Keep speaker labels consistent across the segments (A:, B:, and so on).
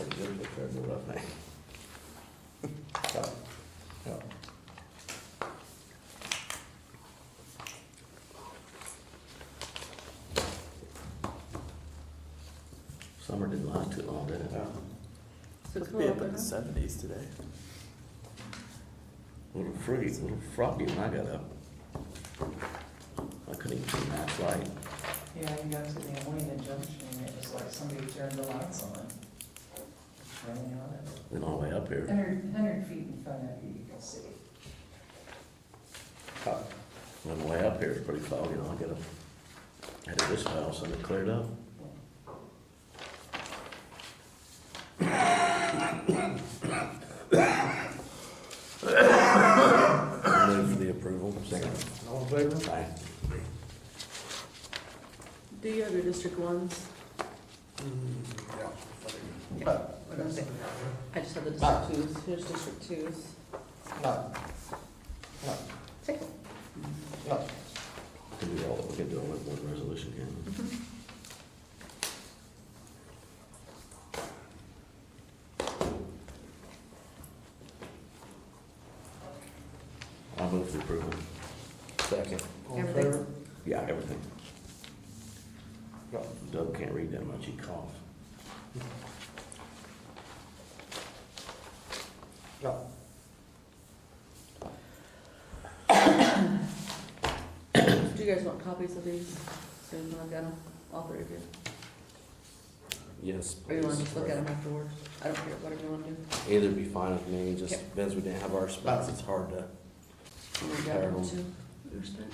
A: Exhibit February, I think. Yeah, yeah.
B: Summer didn't last too long, did it?
A: Yeah.
C: Six
D: Be up
C: o'clock,
D: in
C: huh?
D: the seventies today.
B: A little froggy, a little froggy when I got up. I couldn't even see that light.
E: Yeah, we got to the Alena Junction, and it was like somebody turned the lights on. Running on it.
B: Went all the way up here.
E: Hundred, hundred feet in front of you, you can see.
B: Went way up here, it's pretty foggy, and I got up. Had it this house and it cleared up. Move for the approval. Second.
A: All in favor?
B: Aye.
C: Do you have your District Ones?
A: Mm, Uh,
C: I don't think- I just have the
A: Ah.
C: District Twos, here's District Twos.
A: No. No. No.
B: Can we all, we can do all in one resolution, can we? I'll move for approval.
A: Second. All in
C: Everything.
A: favor?
B: Yeah, everything.
A: No.
B: Doug can't read that much, he coughs.
A: No.
C: Do you guys want copies of these? So when I've got them, all three of you.
F: Yes,
C: Or Oh, you want to
F: please.
C: just look at them afterwards? I don't care, whatever you want to do.
F: Either be fine with me, just,
C: Yep.
F: because we didn't have our spots, it's hard to.
C: I'm gonna grab them too. Your stuff.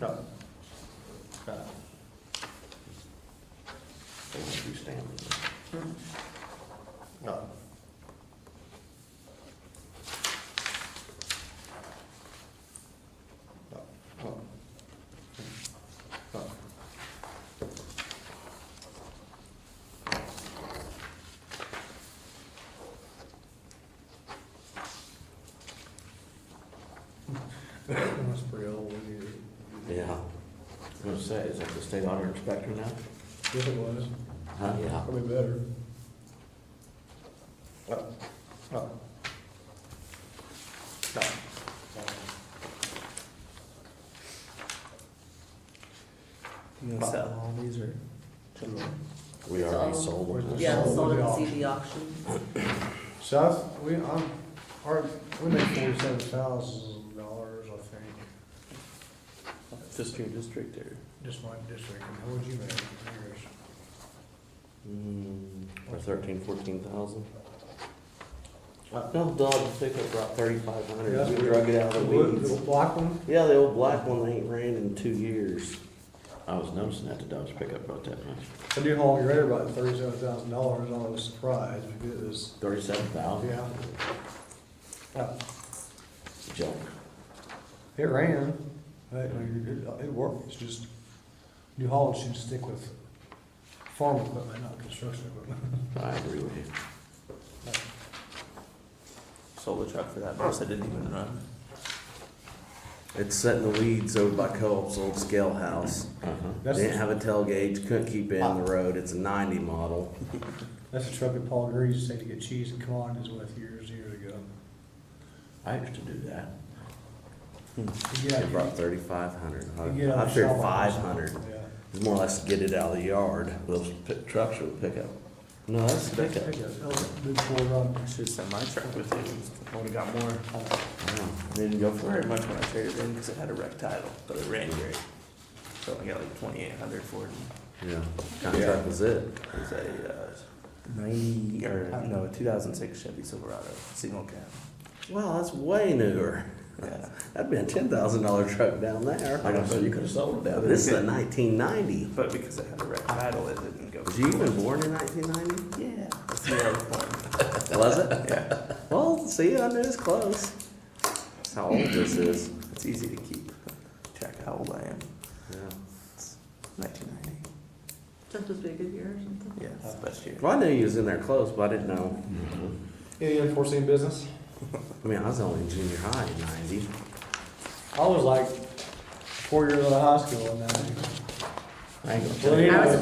A: No. No.
B: They want you stamped.
C: Hmm.
A: No. No. No. No. That's pretty old, isn't it?
F: Yeah.
B: I was gonna say, is that the state auditor inspector now?
A: Yes, it was.
B: Huh?
F: Yeah.
A: Probably better. No, no. No.
D: You gonna sell all these or?
F: We already
C: So-
F: sold them.
C: Yeah,
A: Sold
C: sold
A: the
C: at
A: auction.
C: CD auction.
A: South, we, um, our, we make forty-seven thousand dollars, I think,
D: Just your district or?
A: just my district, and how would you make yours?
F: Mm, For thirteen, fourteen thousand.
A: Uh,
F: No, Doug, pick up about thirty-five
A: Yeah.
F: hundred, we drug it out
A: The
F: of the
A: wood,
F: weeds.
A: the black one?
F: Yeah, the old black one that ain't ran in two years.
B: I was noticing that the Dodge pickup brought that much.
A: I do haul your air about thirty-seven thousand dollars, I was surprised, because it was,
B: Thirty-seven thousand?
A: yeah. Uh,
B: Junk.
A: It ran, I- I- it, it worked, it's just, New Holland should stick with farm equipment, not construction equipment.
B: I agree with you.
D: Sold the truck for that much, I didn't even run.
F: It's set in the weeds over by Co-op's old scale house.
B: Uh-huh.
A: That's,
F: Didn't have a tail gauge, couldn't keep it in the road, it's a ninety model.
A: that's the truck that Paul Greer used to take to get cheese and commodities with years, years ago.
B: I used to do that.
A: Yeah,
F: It brought thirty-five hundred.
A: you get out
F: I
A: of
F: figured
A: shop on
F: five
A: this.
F: hundred.
A: Yeah.
F: It's more or less get it out of the yard.
B: Those pick- trucks would pick up.
F: No, that's
A: Pick up, big four rod.
D: Should've sent my truck with it, would've got more.
F: Oh,
D: I didn't go for very much when I traded in, cause it had a wreck title, but it ran great. So I got like twenty-eight hundred for it,
F: Yeah, contract was it.
D: it was a, uh, ninety, or, no, a two thousand six Chevy Silverado, single cab.
F: Wow, that's way newer.
D: Yeah.
F: That'd been a ten thousand dollar truck down there.
B: Like I said, you could have sold it
F: Now,
B: down there.
F: This is a nineteen ninety.
D: But because it had a red title, it didn't go.
F: Was you even born in nineteen ninety?
D: Yeah. That's the year I was born.
F: Was it?
D: Yeah,
F: Well, see, I knew it was close. That's how old this is.
D: it's easy to keep track of how old I am.
F: Yeah.
D: Nineteen ninety.
C: That's supposed to be a good year or something.
D: Yeah, it's the best year.
F: Well, I knew you was in there close, but I didn't know.
A: Any unforeseen business?
F: I mean, I was only in junior high in ninety.
A: I was like four years out of high school and that.
B: I ain't gonna
A: Well,
B: tell you.
A: you know,
C: I was